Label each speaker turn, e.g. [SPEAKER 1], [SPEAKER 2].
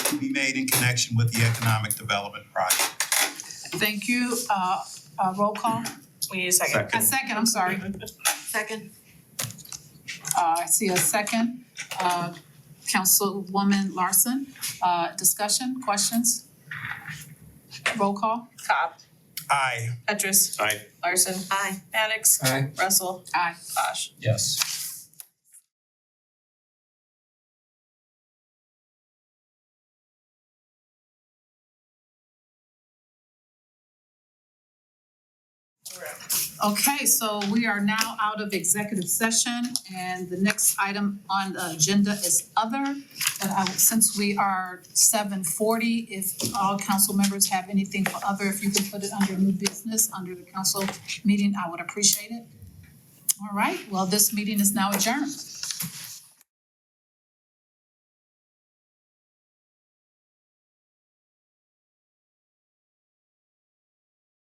[SPEAKER 1] made in connection with the economic development project.
[SPEAKER 2] Thank you, uh, uh, roll call,
[SPEAKER 3] We need a second.
[SPEAKER 2] a
[SPEAKER 1] Second.
[SPEAKER 2] second, I'm sorry,
[SPEAKER 4] Second.
[SPEAKER 2] uh, I see a second, uh, Councilwoman Larson, uh, discussion, questions? Roll call,
[SPEAKER 3] Cobb,
[SPEAKER 1] Aye.
[SPEAKER 3] Petrus.
[SPEAKER 5] Aye.
[SPEAKER 3] Larson.
[SPEAKER 4] Aye.
[SPEAKER 3] Maddox.
[SPEAKER 6] Aye.
[SPEAKER 3] Russell.
[SPEAKER 2] aye.
[SPEAKER 3] Bosch.
[SPEAKER 6] Yes.
[SPEAKER 2] Okay, so we are now out of executive session and the next item on the agenda is other. And I, since we are seven forty, if all council members have anything for other, if you can put it under new business, under the council meeting, I would appreciate it. All right, well, this meeting is now adjourned.